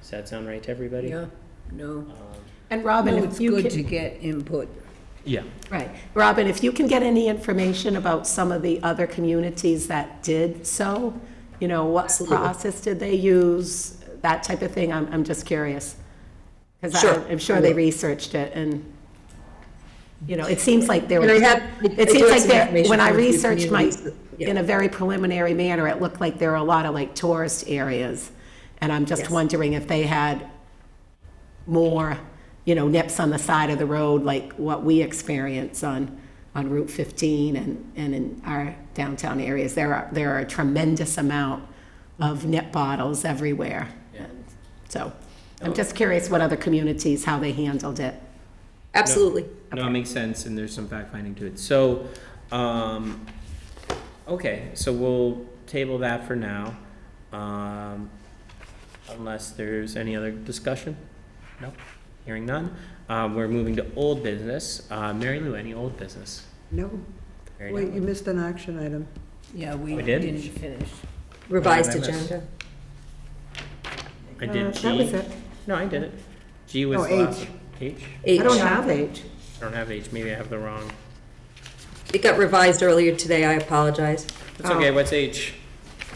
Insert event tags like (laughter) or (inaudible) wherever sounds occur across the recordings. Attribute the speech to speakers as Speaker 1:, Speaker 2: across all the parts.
Speaker 1: Does that sound right to everybody?
Speaker 2: Yeah, no.
Speaker 1: Um,
Speaker 3: And
Speaker 2: No,
Speaker 3: Robin,
Speaker 2: it's
Speaker 3: if you
Speaker 2: good to
Speaker 3: can,
Speaker 2: get input.
Speaker 1: Yeah,
Speaker 3: right, Robin, if you can get any information about some of the other communities that did so, you know, what process did they use, that type of thing, I'm, I'm just curious. Because
Speaker 4: Sure.
Speaker 3: I'm sure they researched it and, you know, it seems like there
Speaker 4: And
Speaker 3: was.
Speaker 4: I have- I
Speaker 3: It
Speaker 4: do have
Speaker 3: seems like
Speaker 4: some
Speaker 3: there,
Speaker 4: information
Speaker 3: when I
Speaker 4: from a few
Speaker 3: researched my,
Speaker 4: communities that- yeah.
Speaker 3: in a very preliminary manner, it looked like there were a lot of like tourist areas. And I'm just
Speaker 4: Yes.
Speaker 3: wondering if they had more, you know, nips on the side of the road, like what we experience on, on Route 15 and, and in our downtown areas. There are, there are a tremendous amount of nip bottles everywhere. And So I'm just curious what other communities, how they handled it.
Speaker 4: Absolutely.
Speaker 1: no, it makes sense, and there's some fact finding to it. So, um, okay, so we'll table that for now. Um, unless there's any other discussion? No? Hearing none? Um, we're moving to old business. Uh, Mary Lou, any old business?
Speaker 5: No,
Speaker 1: Mary
Speaker 5: wait,
Speaker 1: Lou?
Speaker 5: you missed an action item.
Speaker 2: Yeah, we
Speaker 1: We did?
Speaker 2: didn't finish.
Speaker 4: Revised
Speaker 1: What did I miss?
Speaker 4: agenda.
Speaker 1: I did
Speaker 5: Uh,
Speaker 1: G.
Speaker 5: That was it.
Speaker 1: No, I did it. G was
Speaker 5: No,
Speaker 1: the last.
Speaker 5: H.
Speaker 1: H?
Speaker 5: I
Speaker 4: H.
Speaker 5: don't have H.
Speaker 1: I don't have H, maybe I have the wrong.
Speaker 4: It got revised earlier today, I apologize.
Speaker 1: It's
Speaker 5: Oh.
Speaker 1: okay, what's H?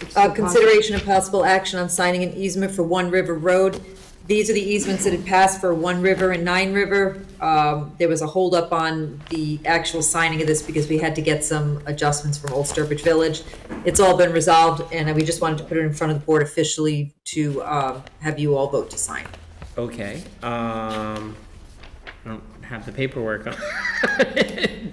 Speaker 5: It's
Speaker 4: Uh,
Speaker 5: the
Speaker 4: Consideration of possible action on signing an easement for One River Road. These are the easements that had passed for One River and Nine River. Um, There was a holdup on the actual signing of this because we had to get some adjustments from Old Sturbridge Village. It's all been resolved, and we just wanted to put it in front of the board officially to uh, have you all vote to sign.
Speaker 1: Okay, um, I don't have the paperwork on, (laughs)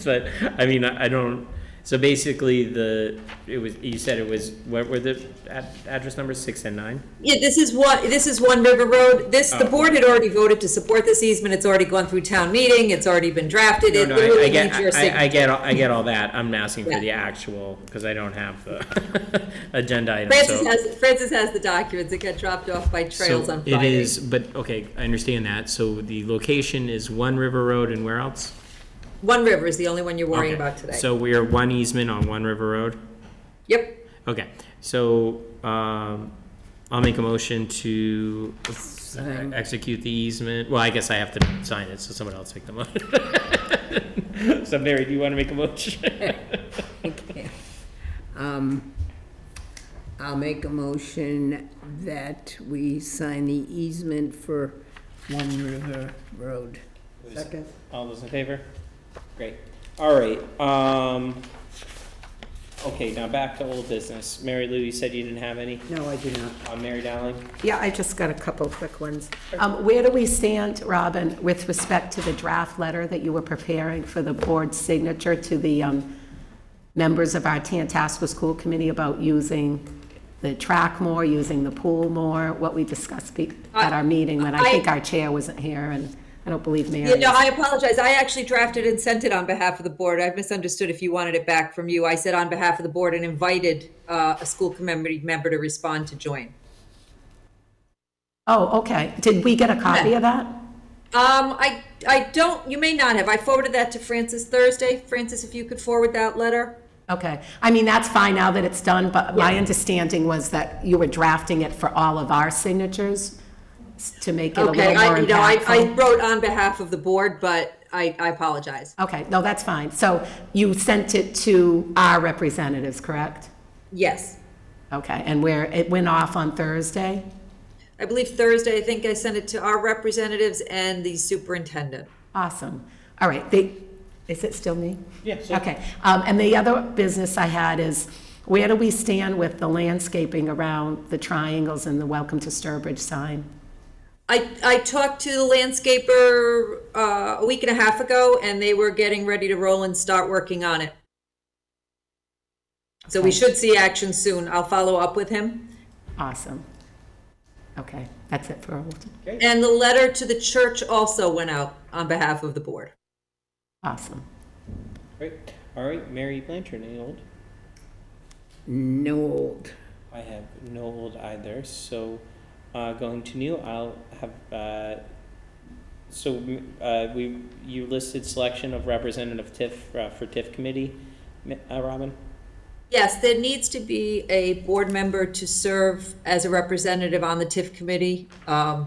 Speaker 1: but, I mean, I I don't, so basically the, it was, you said it was, what were the ad- address numbers, six and nine?
Speaker 4: Yeah, this is one, this is One River Road. This, the
Speaker 1: Oh.
Speaker 4: board had already voted to support this easement. It's already gone through town meeting. It's already been drafted.
Speaker 1: No,
Speaker 4: It
Speaker 1: no, I- I
Speaker 4: literally
Speaker 1: get-
Speaker 4: needs your
Speaker 1: I- I
Speaker 4: signature.
Speaker 1: get, all- I get all that, I'm asking for
Speaker 4: Yeah.
Speaker 1: the actual, because I don't have the (laughs) agenda item, so.
Speaker 4: Francis has, Francis has the documents. It got dropped off by Trails
Speaker 1: So
Speaker 4: on Friday.
Speaker 1: It is, but, okay, I understand that, so the location is One River Road and where else?
Speaker 4: One River is the only one you're worrying
Speaker 1: Okay,
Speaker 4: about today.
Speaker 1: So we are one easement on One River Road?
Speaker 4: Yep.
Speaker 1: Okay, so, um, I'll make a motion to
Speaker 2: Sign.
Speaker 1: execute the easement, well, I guess I have to sign it, so someone else make the motion. (laughs) So Mary, do you wanna make a motion?
Speaker 2: Okay. Um, I'll make a motion that we sign the easement for One River Road.
Speaker 5: Second.
Speaker 1: (laughs) All those in favor? Great, all right, um, okay, now back to old business, Mary Lou, you said you didn't have any,
Speaker 5: No, I do not.
Speaker 1: on Mary Dowling?
Speaker 3: Yeah, I just got a couple quick ones. Um, Where do we stand, Robin, with respect to the draft letter that you were preparing for the board's signature to the um, members of our Tantasco School Committee about using the track more, using the pool more, what we discussed be- at our meeting when I
Speaker 4: I-
Speaker 3: think our chair wasn't here, and I don't believe Mary.
Speaker 4: Yeah, no,
Speaker 3: is.
Speaker 4: I apologize. I actually drafted and sent it on behalf of the board. I misunderstood if you wanted it back from you. I said on behalf of the board and invited uh, a school committee member to respond to join.
Speaker 3: Oh, okay. Did we get a copy of that?
Speaker 4: Um, I, I don't, you may not have. I forwarded that to Francis Thursday. Francis, if you could forward that letter.
Speaker 3: Okay, I mean, that's fine now that it's done, but my understanding was that you were drafting it for all of our signatures s- to make it a little
Speaker 4: Okay,
Speaker 3: more
Speaker 4: I, you know, I, I
Speaker 3: impactful.
Speaker 4: wrote on behalf of the board, but I, I apologize.
Speaker 3: Okay, no, that's fine. So you sent it to our representatives, correct?
Speaker 4: Yes.
Speaker 3: Okay, and where, it went off on Thursday?
Speaker 4: I believe Thursday, I think I sent it to our representatives and the superintendent.
Speaker 3: Awesome. All right, they, is it still me?
Speaker 1: Yes.
Speaker 3: Okay, um, and the other business I had is, where do we stand with the landscaping around the triangles and the Welcome to Sturbridge sign?
Speaker 4: I, I talked to the landscaper uh, a week and a half ago, and they were getting ready to roll and start working on it. So we should see action soon. I'll follow up with him.
Speaker 3: Awesome. Okay, that's it for old.
Speaker 4: And the letter to the church also went out on behalf of the board.
Speaker 3: Awesome.
Speaker 1: Great, all right, Mary Blanchard, any old?
Speaker 2: No old.
Speaker 1: I have no old either, so uh, going to new, I'll have, uh, so m- uh, we, you listed selection of representative TIF, uh, for TIF committee, m- uh, Robin?
Speaker 4: Yes, there needs to be a board member to serve as a representative on the TIF committee. Um,